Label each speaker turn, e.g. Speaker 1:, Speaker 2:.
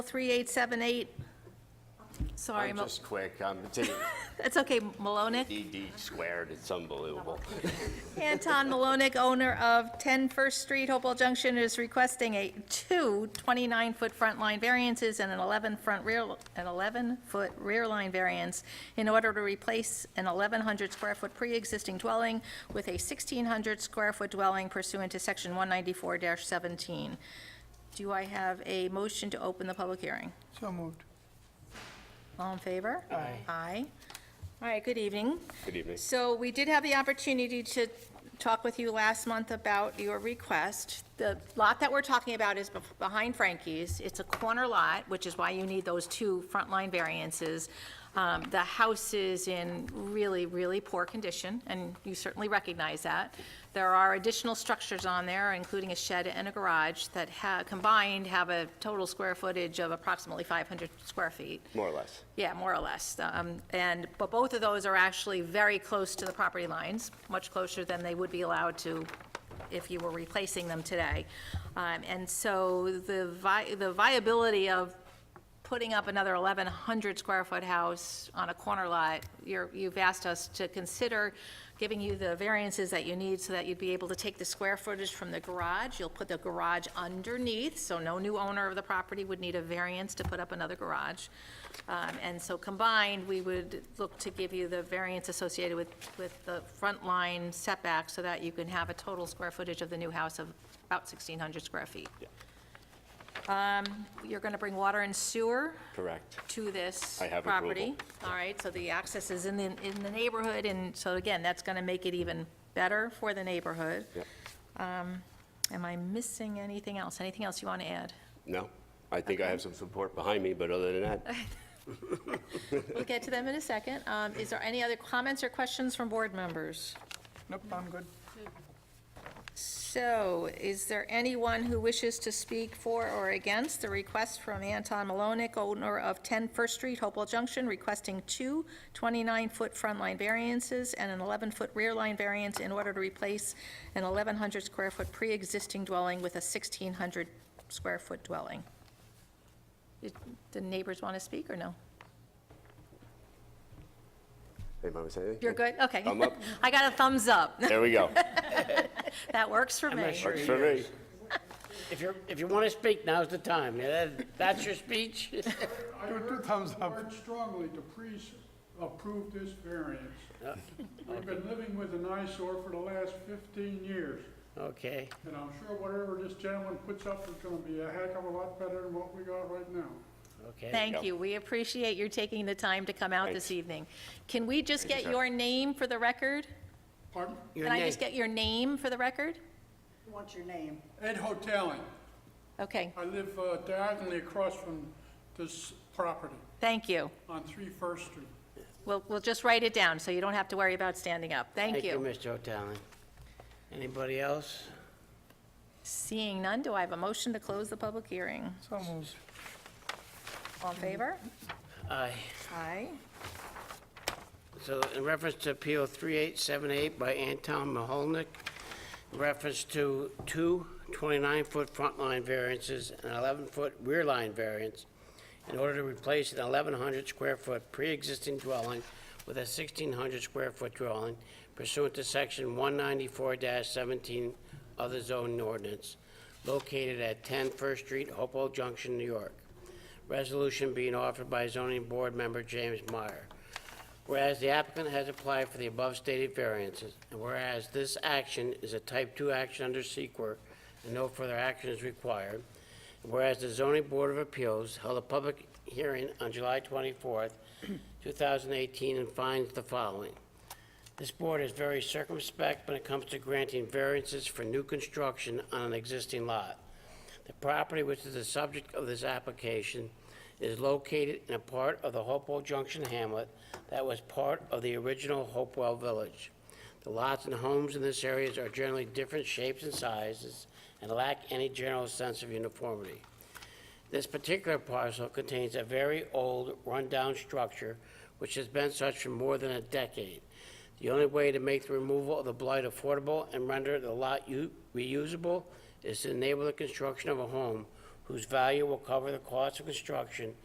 Speaker 1: 3878, sorry,
Speaker 2: I'm
Speaker 1: Mo-
Speaker 2: just quick, I'm taking
Speaker 1: that's okay, Malonick.
Speaker 2: DD squared, it's unbelievable.
Speaker 1: Anton Malonick, owner of 10 First Street, Hopewell Junction, is requesting a two 29-foot front line variances and an 11 front rear, an 11-foot rear line variance in order to replace an 1,100 square foot pre-existing dwelling with a 1,600 square foot dwelling pursuant to section 194-17. Do I have a motion to open the public hearing?
Speaker 3: So moved.
Speaker 1: All in favor? Aye. Aye. All right, good evening.
Speaker 2: Good evening.
Speaker 1: So we did have the opportunity to talk with you last month about your request. The lot that we're talking about is bef- behind Frankie's. It's a corner lot, which is why you need those two front line variances. Um, The house is in really, really poor condition, and you certainly recognize that. There are additional structures on there, including a shed and a garage, that ha- combined have a total square footage of approximately 500 square feet.
Speaker 2: More or less.
Speaker 1: Yeah, more or less. Um, And, but both of those are actually very close to the property lines, much closer than they would be allowed to if you were replacing them today. Um, And so the vi, the viability of putting up another 1,100 square foot house on a corner lot, you're, you've asked us to consider giving you the variances that you need so that you'd be able to take the square footage from the garage. You'll put the garage underneath, so no new owner of the property would need a variance to put up another garage. Um, And so combined, we would look to give you the variance associated with, with the front line setback so that you can have a total square footage of the new house of about 1,600 square feet. Um, You're going to bring water and sewer
Speaker 2: Correct.
Speaker 1: to this
Speaker 2: I have
Speaker 1: property.
Speaker 2: approval.
Speaker 1: All right, so the access is in the, in the neighborhood, and so again, that's going to make it even better for the neighborhood.
Speaker 2: Yep.
Speaker 1: Um, Am I missing anything else? Anything else you want to add?
Speaker 2: No, I think I have some support behind me, but other than that,
Speaker 1: We'll get to them in a second. Um, Is there any other comments or questions from board members?
Speaker 3: Nope, I'm good.
Speaker 1: So is there anyone who wishes to speak for or against the request from Anton Malonick, owner of 10 First Street, Hopewell Junction, requesting two 29-foot front line variances and an 11-foot rear line variance in order to replace an 1,100 square foot pre-existing dwelling with a 1,600 square foot dwelling? Did The neighbors want to speak or no?
Speaker 2: anybody say anything?
Speaker 1: You're good? Okay.
Speaker 2: I'm up.
Speaker 1: I got a thumbs up.
Speaker 2: There we go.
Speaker 1: That works for me.
Speaker 4: not sure
Speaker 2: Works for me.
Speaker 4: If you're, if you want to speak, now's the time. Yeah, that- That's your speech?
Speaker 5: I would
Speaker 3: two thumbs up.
Speaker 5: urge strongly to please approve this variance. We've been living with an eyesore for the last 15 years,
Speaker 4: Okay,
Speaker 5: and I'm sure whatever this gentleman puts up is going to be a heck of a lot better than what we got right now.
Speaker 4: okay.
Speaker 1: Thank you. We appreciate your taking the time to come out this
Speaker 2: Thanks.
Speaker 1: evening. Can we just
Speaker 2: Thank you,
Speaker 1: get
Speaker 2: sir.
Speaker 1: your name for the record?
Speaker 5: Pardon?
Speaker 4: Your
Speaker 1: Can I
Speaker 4: name.
Speaker 1: just get your name for the record?
Speaker 6: What's your name?
Speaker 5: Ed Hoteling.
Speaker 1: Okay,
Speaker 5: I live uh, diagonally across from this property
Speaker 1: thank you.
Speaker 5: on 3 First Street.
Speaker 1: We'll, we'll just write it down, so you don't have to worry about standing up. Thank
Speaker 4: Thank you,
Speaker 1: you.
Speaker 4: Mr. O'Tallon. Anybody else?
Speaker 1: Seeing none, do I have a motion to close the public hearing?
Speaker 3: So moved.
Speaker 1: All in favor?
Speaker 4: Aye.
Speaker 1: Aye.
Speaker 4: So in reference to Appeal 3878 by Anton Maholnick, in reference to two 29-foot front line variances and 11-foot rear line variance in order to replace an 1,100 square foot pre-existing dwelling with a 1,600 square foot dwelling pursuant to Section 194-17 of the zoning ordinance located at 10 First Street, Hopewell Junction, New York. Resolution being offered by zoning board member James Meyer. Whereas the applicant has applied for the above stated variances, and whereas this action is a type two action under SEQA and no further action is required, and whereas the zoning board of appeals held a public hearing on July twenty-fourth, two thousand eighteen, and finds the following. This board is very circumspect when it comes to granting variances for new construction on an existing lot. The property which is the subject of this application is located in a part of the Hopewell Junction hamlet that was part of the original Hopewell Village. The lots and homes in this area are generally different shapes and sizes and lack any general sense of uniformity. This particular parcel contains a very old, rundown structure which has been such for more than a decade. The only way to make the removal of the blight affordable and render the lot u- reusable is to enable the construction of a home whose value will cover the cost of construction